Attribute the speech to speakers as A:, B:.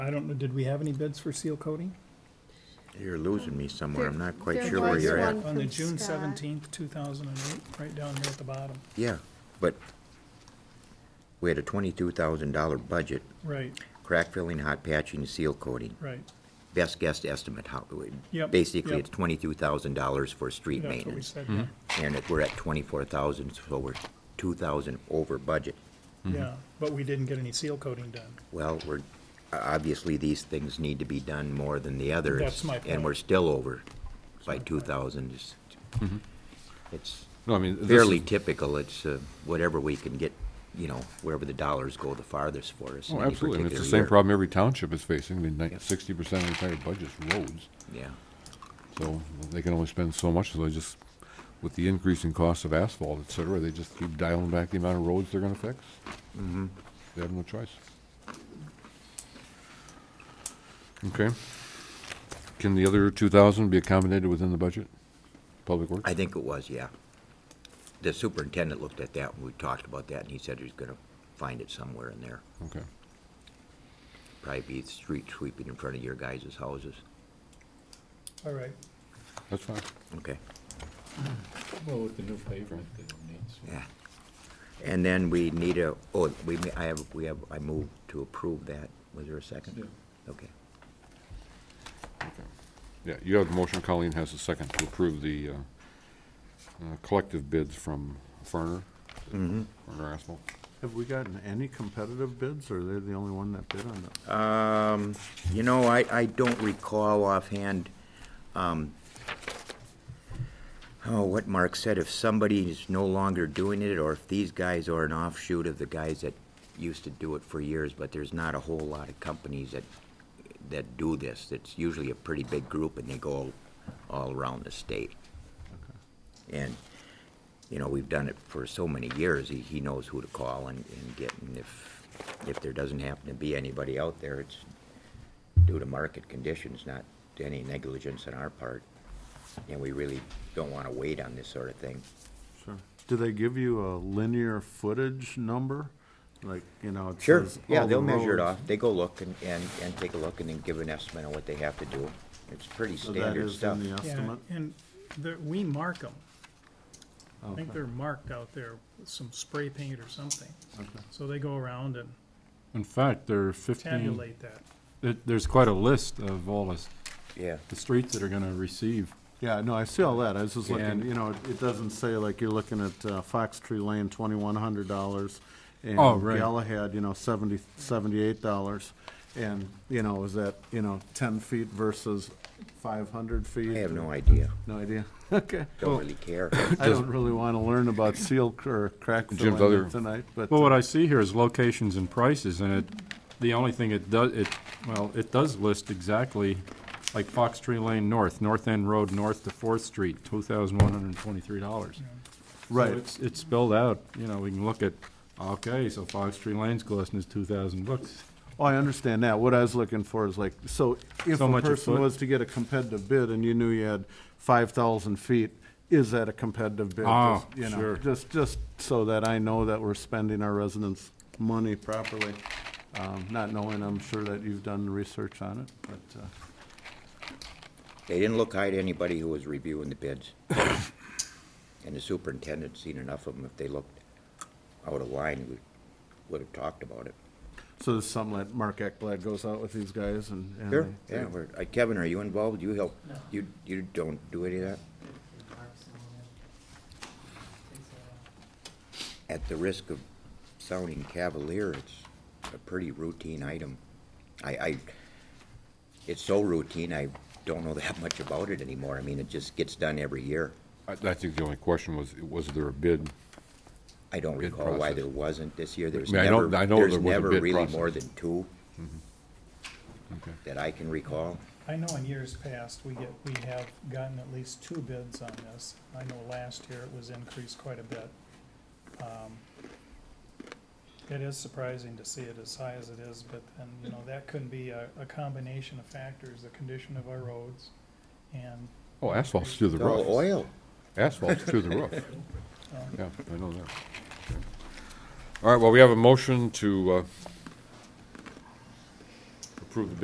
A: I don't know, did we have any bids for seal coating?
B: You're losing me somewhere, I'm not quite
C: There
B: sure where
C: was
B: you're at.
C: one-
A: On the
C: From
A: June
C: Scott.
A: seventeenth, two thousand and eight, right down here at the bottom.
B: Yeah, but we had a twenty-two thousand dollar budget,
A: Right,
B: crack filling, hot patching, seal coating.
A: right.
B: Best guess estimate, how,
A: Yep,
B: basically,
A: yep.
B: it's twenty-two thousand dollars for street
A: That's what we
B: maintenance.
A: said,
D: Mm-hmm.
B: And if we're at twenty-four thousand, so we're two thousand over budget.
A: yeah. But we didn't get any seal coating done.
B: Well, we're, o- obviously, these things need to be done more than the others.
A: That's my
B: And
A: point.
B: we're still over by two thousand. It's
E: No, I mean, this is-
B: fairly typical. It's uh, whatever we can get, you know, wherever the dollars go the farthest for us in
E: Oh,
B: any
E: absolutely. I mean, it's the
B: particular
E: same
B: year.
E: problem every township is facing. I mean,
B: Yep.
E: sixty percent of the entire budget's roads.
B: Yeah,
E: So they can only spend so much, so they just, with the increase in cost of asphalt, et cetera, they just keep dialing back the amount of roads they're gonna fix. They have no choice. Okay. Can the other two thousand be accommodated within the budget? Public Works?
B: I think it was, yeah. The superintendent looked at that, and we talked about that, and he said he's gonna find it somewhere in there.
E: Okay.
B: Probably be street sweeping in front of your guys' houses.
A: All right,
E: That's fine.
B: Okay.
F: Well, with the new pavement, they don't need. so-
B: Yeah. And then we need a, oh, we, ma- I have, we have, I moved to approve that. Was there a second?
F: Yeah.
B: Okay.
E: Yeah, you have the motion, Colleen has a second to approve the uh, uh, collective bids from Ferner. Ferner Asphalt.
D: Have we gotten any competitive bids, or they're the only one that bid on that?
B: Um, you know, I, I don't recall offhand, um, oh, what Mark said, if somebody is no longer doing it, or if these guys are an offshoot of the guys that used to do it for years, but there's not a whole lot of companies that, that do this. It's usually a pretty big group, and they go all around the state. And, you know, we've done it for so many years, he, he knows who to call and, and get, and if, if there doesn't happen to be anybody out there, it's due to market conditions, not to any negligence on our part. And we really don't wanna wait on this sort of thing.
D: Sure. Do they give you a linear footage number? Like, you know, it
B: Sure,
D: says
B: yeah,
D: all
B: they'll
D: the
B: measure it off,
D: roads.
B: they go look and, and, and take a look and then give an estimate on what they have to do. It's pretty
D: So Oh, that
B: standard
D: is
B: stuff.
D: in the
A: yeah,
D: estimate?
A: and there, we mark them. I think
D: Okay.
A: they're marked out there with some spray paint or something.
D: Okay.
A: So they go around and
G: In fact, there are fifteen,
A: tabulate that.
G: there- there's quite a list of all the, s-
B: Yeah,
G: the streets that are gonna receive.
D: Yeah, no, I see all that, I was just looking,
G: And-
D: you know, it it doesn't say, like, you're looking at uh, Fox Tree Lane, twenty-one hundred dollars, and
G: Oh, right.
D: Galahad, you know, seventy, seventy-eight dollars, and, you know, is that, you know, ten feet versus five hundred feet?
B: I have no idea,
D: No idea, okay.
B: don't really care.
D: I don't really want to learn about seal c- or crack
E: Jim's
D: filling
E: other-
D: tonight, but.
G: Well, what I see here is locations and prices, and it, the only thing it does, it, well, it does list exactly, like Fox Tree Lane North, North End Road North to Fourth Street, two thousand one hundred and twenty-three dollars.
D: Right.
G: It's, it's spelled out, you know, we can look at, okay, so Fox Tree Lane's costing us two thousand bucks.
D: Oh, I understand that. What I was looking for is like, so if
G: So
D: a
G: much a
D: person
G: foot?
D: was to get a competitive bid and you knew you had five thousand feet, is that a competitive bid?
G: Ah,
D: Just, you know,
G: sure.
D: Just, just so that I know that we're spending our residents' money properly. Um, not knowing, I'm sure that you've done research on it, but, uh,
B: They didn't look high to anybody who was reviewing the bids. And the superintendent's seen enough of them, if they looked out of line, we would have talked about it.
D: so there's something that Mark Ekblad goes out with these guys and. and they-
B: Yeah, we're- uh, Kevin, are you involved? You help? You, you don't do any of that? At the risk of sounding cavalier, it's a pretty routine item. I, I, it's so routine, I don't know that much about it anymore. I mean, it just gets done every year.
E: I, I think the only question was, was there a bid?
B: I don't
E: Bid
B: recall why
E: process.
B: there wasn't this year. There's
E: I mean, I don't-
B: never,
E: I know
B: there's
E: there was a
B: never
E: bid
B: really
E: process. Mm-hmm.
B: more than two
E: Okay.
B: that I can recall.
A: I know in years past, we get, we have gotten at least two bids on this. I know last year it was increased quite a bit. Um, It is surprising to see it as high as it is, but then, you know, that could be a, a combination of factors, the condition of our roads and,
E: Oh, asphalt's through the
B: It's all
E: roof.
B: oil.
E: Asphalt's through the roof.
A: um,
E: Yeah, I know that. Okay. All right, well, we have a motion to uh, approve the bid